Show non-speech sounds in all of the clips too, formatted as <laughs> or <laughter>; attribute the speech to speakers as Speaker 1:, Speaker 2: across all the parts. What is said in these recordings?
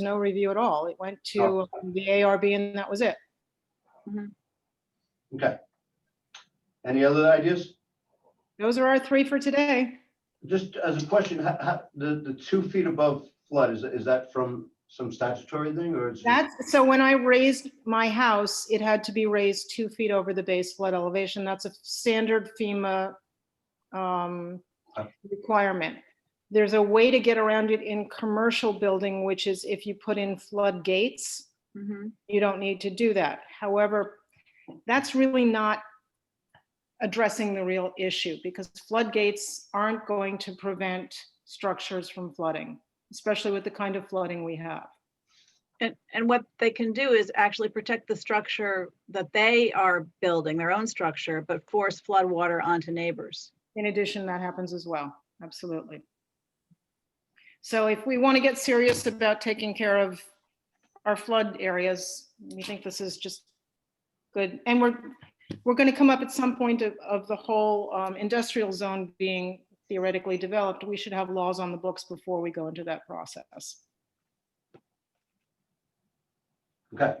Speaker 1: no review at all. It went to um, the ARB and that was it.
Speaker 2: Okay. Any other ideas?
Speaker 1: Those are our three for today.
Speaker 2: Just as a question, how, how, the, the two feet above flood, is, is that from some statutory thing or it's?
Speaker 1: That's, so when I raised my house, it had to be raised two feet over the base flood elevation. That's a standard FEMA um,
Speaker 2: Okay.
Speaker 1: requirement. There's a way to get around it in commercial building, which is if you put in flood gates,
Speaker 3: Mhm.
Speaker 1: you don't need to do that. However, that's really not addressing the real issue because floodgates aren't going to prevent structures from flooding, especially with the kind of flooding we have.
Speaker 3: And, and what they can do is actually protect the structure that they are building, their own structure, but force floodwater onto neighbors.
Speaker 1: In addition, that happens as well, absolutely. So if we want to get serious about taking care of our flood areas, we think this is just good. And we're, we're going to come up at some point of, of the whole um, industrial zone being theoretically developed. We should have laws on the books before we go into that process.
Speaker 2: Okay,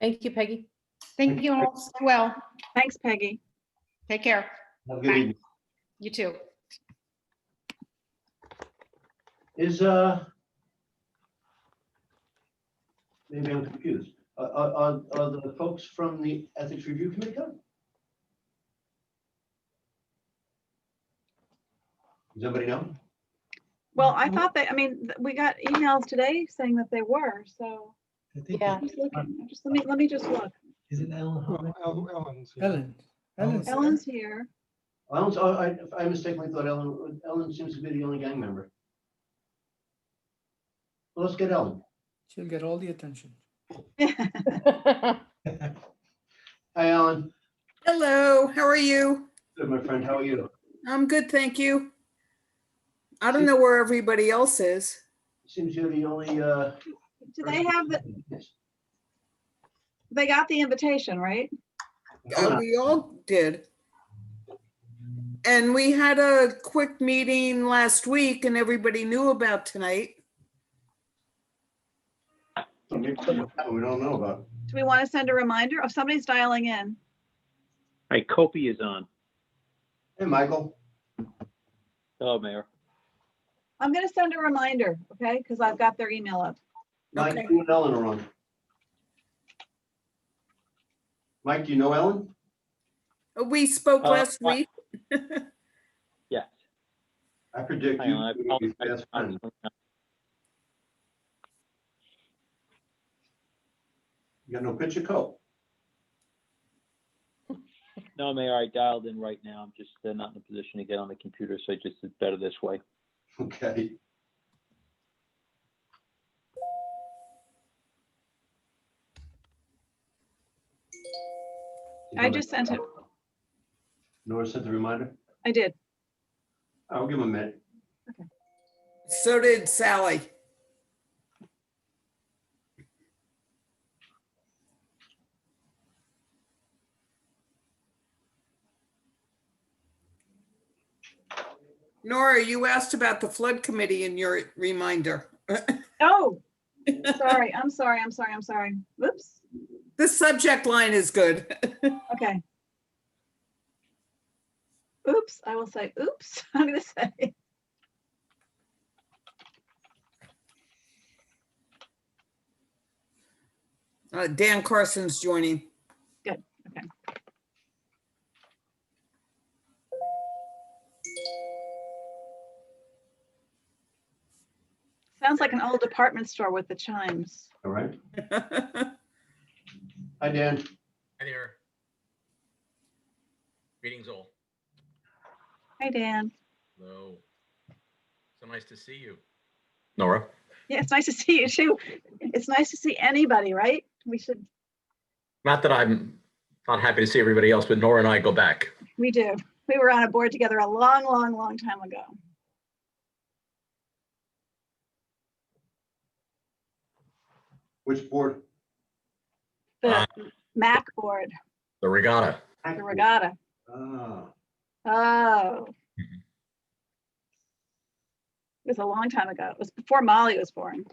Speaker 4: Thank you, Peggy.
Speaker 1: Thank you all. Stay Well,
Speaker 3: Thanks, Peggy.
Speaker 1: take care.
Speaker 2: have a good evening.
Speaker 1: You too.
Speaker 2: Is, uh, maybe I'm confused. Are, are, are- are the folks from the Ethics Review Committee coming? Does anybody know?
Speaker 3: Well, I thought they, I mean, th- we got emails today saying that they were, so
Speaker 5: I think
Speaker 4: Yeah.
Speaker 3: I'm just looking, I'm just, let me, let me just look.
Speaker 5: Is it Ellen? Hubbard?
Speaker 6: Well, El- Ellen's. yeah.
Speaker 5: Ellen. Ellen's-
Speaker 3: Ellen's here.
Speaker 2: Ellen's, oh, I, I mistakenly thought Ellen, Ellen seems to be the only gang member. Well, Let's get Ellen.
Speaker 5: She'll get all the attention.
Speaker 2: Hi, Alan.
Speaker 7: Hello, how are you?
Speaker 2: Good, my friend. How are you?
Speaker 7: I'm good, thank you. I don't know where everybody else is.
Speaker 2: Seems you're the only, uh.
Speaker 3: Do they have, the?
Speaker 2: Yes.
Speaker 3: they got the invitation, right?
Speaker 7: Uh,
Speaker 2: Hold
Speaker 7: We all did. And we had a quick meeting last week and everybody knew about tonight.
Speaker 2: on. We don't know about.
Speaker 3: Do we want to send a reminder? Oh, somebody's dialing in.
Speaker 8: Hi, Kopi is on.
Speaker 2: Hey, Michael.
Speaker 8: Hello, Oh, Mayor.
Speaker 3: I'm going to send a reminder, okay? Because I've got their email up.
Speaker 2: Mike,
Speaker 7: Okay.
Speaker 2: you and Ellen are on. Mike, do you know Ellen?
Speaker 7: Uh, We spoke
Speaker 8: Uh,
Speaker 7: last
Speaker 8: what-
Speaker 7: week.
Speaker 8: Yes.
Speaker 2: I predict
Speaker 8: Hang
Speaker 2: you.
Speaker 8: on, I
Speaker 2: you'll be
Speaker 8: apologize.
Speaker 2: best friends. You got no picture coat?
Speaker 8: No, Mayor, I dialed in right now. I'm just uh, not in a position to get on the computer, so I just it's better this way.
Speaker 2: <laughs> Okay.
Speaker 3: I just sent it.
Speaker 2: Nora sent the reminder.
Speaker 3: I did.
Speaker 2: I'll give him a minute.
Speaker 7: So did Sally. Nora, you asked about the flood committee in your reminder.
Speaker 3: Oh, sorry. I'm sorry. I'm sorry. I'm sorry. Whoops.
Speaker 7: The subject line is good.
Speaker 3: Okay. Oops, I will say oops. <laughs> I'm gonna say.
Speaker 7: Uh, Dan Carson's joining. <laughs>
Speaker 3: Sounds like an old department store with the chimes.
Speaker 2: All right. Hi, Dan.
Speaker 9: Hi there. Greetings all.
Speaker 3: Hi, Dan.
Speaker 9: Hello. So nice to see you. Nora?
Speaker 3: Yeah, it's nice to see you too. It's nice to see anybody, right? We should,
Speaker 9: Not that I'm not happy to see everybody else, but Nora and I go back.
Speaker 3: we do. We were on a board together a long, long, long time ago.
Speaker 2: Which board?
Speaker 3: The
Speaker 9: Ah.
Speaker 3: Mac board,
Speaker 9: The regatta.
Speaker 3: the regatta.
Speaker 2: Ah,
Speaker 3: Oh.
Speaker 9: Mm-hmm.
Speaker 3: It was a long time ago. It was before Molly was born.